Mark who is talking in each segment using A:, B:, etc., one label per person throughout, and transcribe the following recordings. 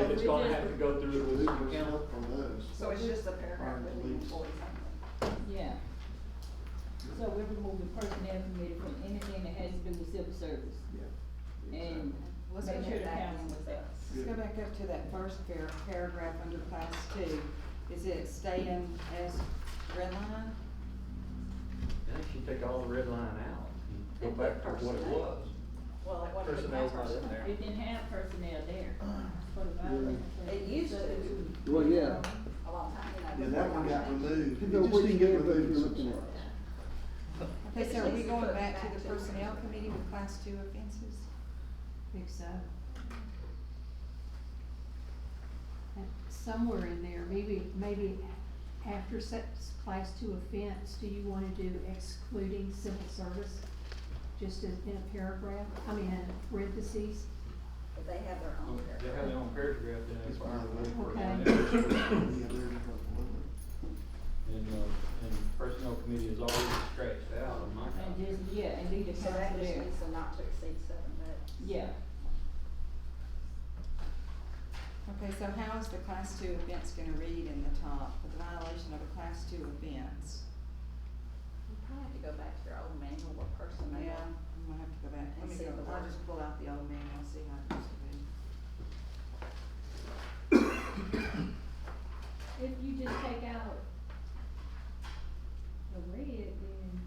A: if it's gonna have to go through the
B: We
A: legal
B: can
A: counsel.
B: count from those.
C: So it's just a paragraph with the employee
D: Yeah. So we're removing personnel committee from anything that has to do with civil service.
B: Yeah.
D: And
C: Let's
D: make
C: go
D: sure the
C: back.
D: county was up.
E: Let's go back up to that first par- paragraph under class two. Is it staying as redline?
A: Now you should take all the red line out, and go back to what it was.
C: Well, it wasn't.
A: Personnel's not in there.
D: It didn't have personnel there for the violation.
E: It used to.
F: Well, yeah,
C: A long time, you know.
B: Yeah, that one got removed. It
F: Depends on
B: just
F: what
B: didn't
F: you
B: get
F: did, but
B: removed
F: you're
B: in
F: looking at
B: September.
E: Okay, so are we going back to
C: Back
E: the
C: to-
E: personnel committee with class two offenses?
G: think so. And Somewhere in there, maybe, maybe after such class two offense, do you wanna do excluding civil service? Just in, in a paragraph, I mean, in parentheses,
C: But they have their own
A: They
C: paragraph.
A: have their own paragraph, then
B: It's
A: it's
B: fine.
G: Okay.
B: Yeah, they're different.
A: And, uh, and personnel committee is already scratched out of my
D: And
A: copy.
D: just, yeah, and leave the
C: So
D: council
C: that just
D: there,
C: needs to not to exceed seven votes.
D: yeah.
E: Okay, so how is the class two offense gonna read in the top, the violation of a class two offense?
C: You probably have to go back to your old manual, what personnel.
E: Yeah, I'm gonna have to go back,
C: And
E: let me
C: see
E: go,
C: the
E: I'll
C: word.
E: just pull out the old manual, see how it used to be.
G: if you just take out the red, then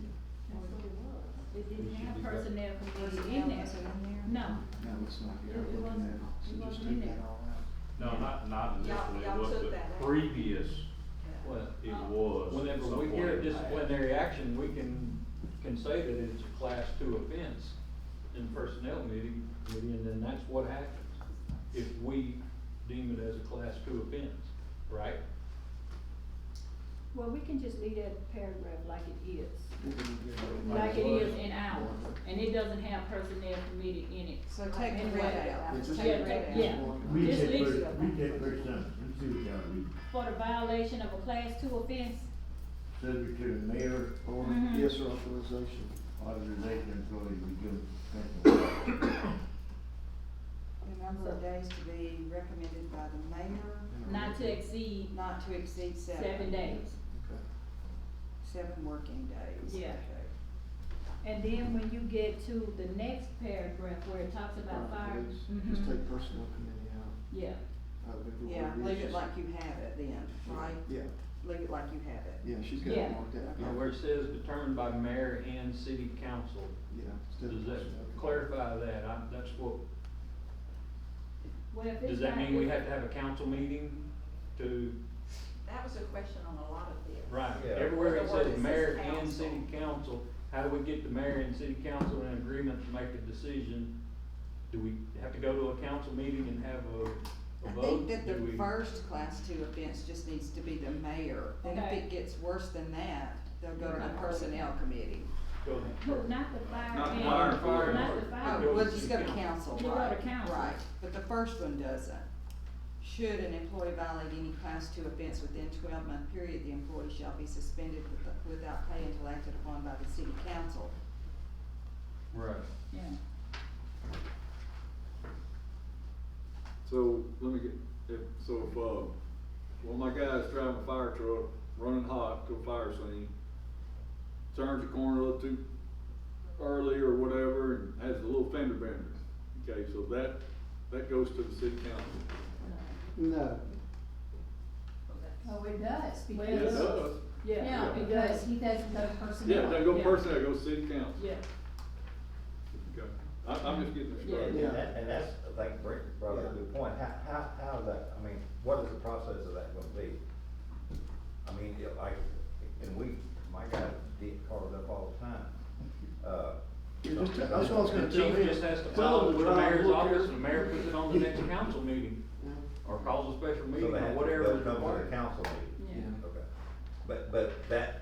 G: that's what it was.
D: It didn't
A: It should
D: have
A: be back.
D: personnel committee
E: Personnel
D: in there.
E: was in there?
D: No,
B: Now it's not
D: It-
B: here,
D: it
B: looking
D: wasn't- it
B: at it, so just
D: wasn't in
B: take
D: there.
B: that all out.
H: No, not, not in this
C: Y'all-
H: one,
C: y'all
H: it was
C: took
H: the
C: that out.
H: previous,
A: Well,
H: it
D: Uh,
H: was.
A: whenever
H: so
A: we
H: far
A: hear a
H: it passed.
A: disciplinary action, we can, can say that it's a class two offense in personnel committee, committee, and then that's what happens. If we deem it as a class two offense, right?
D: well, we can just leave that paragraph like it is,
B: We can get rid of
D: like it
A: was.
D: is in ours, and it doesn't have personnel committee in it.
E: So take the red out,
B: Yeah,
E: take
B: just
E: the
D: Yeah,
B: take
E: red
B: that
E: out.
D: yeah.
B: one.
D: We
I: Read
D: Just
I: that
D: leave
I: first,
D: it alone.
I: read that first sentence, let's see what y'all read.
D: For the violation of a class two offense,
I: Subject to the mayor
B: Or,
D: Mhm.
B: yes, or authorization.
I: authorization employee to give.
E: The number of days to be recommended by the mayor,
D: not to exceed
E: not to exceed seven.
D: seven days.
B: Okay.
E: Seven working days.
D: Yeah.
E: Okay.
D: And then when you get to the next paragraph where it talks about
B: Fire
D: fire.
B: police.
D: mhm,
B: Just take personnel committee out.
D: Yeah,
B: Uh, we can
E: Yeah,
B: work
E: leave it
B: issues.
E: like you have it then, right?
B: Yeah,
E: Leave it like you have it.
B: yeah, she's got it
D: Yeah.
B: marked out.
A: Now, where it says determined by mayor and city council,
B: Yeah. instead
A: does
B: of
A: that
B: personnel committee.
A: clarify that? I, that's what,
D: well, if it's
A: does that
D: not-
A: mean we have to have a council meeting to,
C: That was a question on a lot of this.
A: right?
F: Yeah.
A: Everywhere it
C: Or the word
A: says
C: that
A: mayor
C: says
A: and
C: council.
A: city council, how do we get the mayor and city council in agreement to make a decision? Do we have to go to a council meeting and have a,
E: I
A: a
E: think
A: vote?
E: that
A: Do
E: the
A: we-
E: first class two offense just needs to be the mayor, and if
D: Okay.
E: it gets worse than that, they'll go to
A: Right.
E: the personnel committee.
A: Go ahead.
D: No, not the fire.
H: Not the
D: and-
H: fire, fire.
D: Not the
E: Oh,
D: fire.
A: go
E: we'll
A: to
E: just
A: the
E: go to
A: council.
E: council,
D: You go to
E: right,
D: council.
E: right, but the first one doesn't. Should an employee violate any class two offense within twelve month period, the employee shall be suspended with- without pay until acted upon by the city council.
A: Right.
D: Yeah.
J: So, let me get, if, so if, uh, one of my guys driving a fire truck, running hot to a fire scene, turns the corner a little too early or whatever, and has a little fender bender. Okay, so that, that goes to the city council.
F: no,
G: Oh, it does,
D: Well,
J: Yeah, it
D: it's-
G: because,
J: does.
D: Yeah,
G: yeah, because he doesn't know personnel.
J: Yeah, that go
D: Yeah.
J: person, that goes city council.
D: yeah,
J: Okay, I, I'm just getting this
D: Yeah.
J: right.
F: Yeah.
K: And that, and that's, like Rick brought up a good point, how, how, how is that, I mean, what is the process of that gonna be? I mean, it- like, and we, my guy get called up all the time, uh.
B: Yeah, just, that's what I was
A: The
B: gonna tell
A: chief
B: him.
A: just has to
B: Tell
A: follow
B: him
A: it with the
B: drive,
A: mayor's
B: look
A: office,
B: here.
A: and the mayor puts it on the next council meeting, or calls a special
K: so
A: meeting,
K: they
A: or
K: have to-
A: whatever
K: they'll
A: is
K: come to the
A: required.
K: council meeting,
D: yeah.
K: okay, but, but that,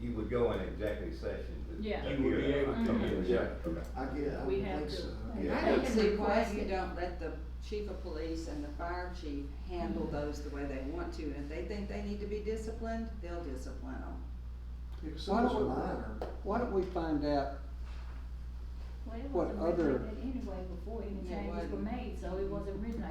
K: you would go in executive session to.
D: Yeah.
K: to
A: You would be
K: hear
A: able
K: that.
A: to,
K: Okay,
A: yeah.
K: okay.
B: I get it, I
D: We
B: would
D: have
B: think
D: to-
B: so.
G: Yeah.
E: I don't
G: Yeah.
E: see why
G: Request
E: you
G: it.
E: don't let the chief of police and the fire chief handle those the way they want to, and if they think they need to be disciplined, they'll discipline them.
B: If
F: Why
B: someone's
F: don't
B: a
F: we-
B: minor,
F: why don't we find out
D: Well, it
B: What
D: wasn't written
B: other-
D: like that anyway before any
E: It
D: changes were
E: wasn't.
D: made, so it wasn't written like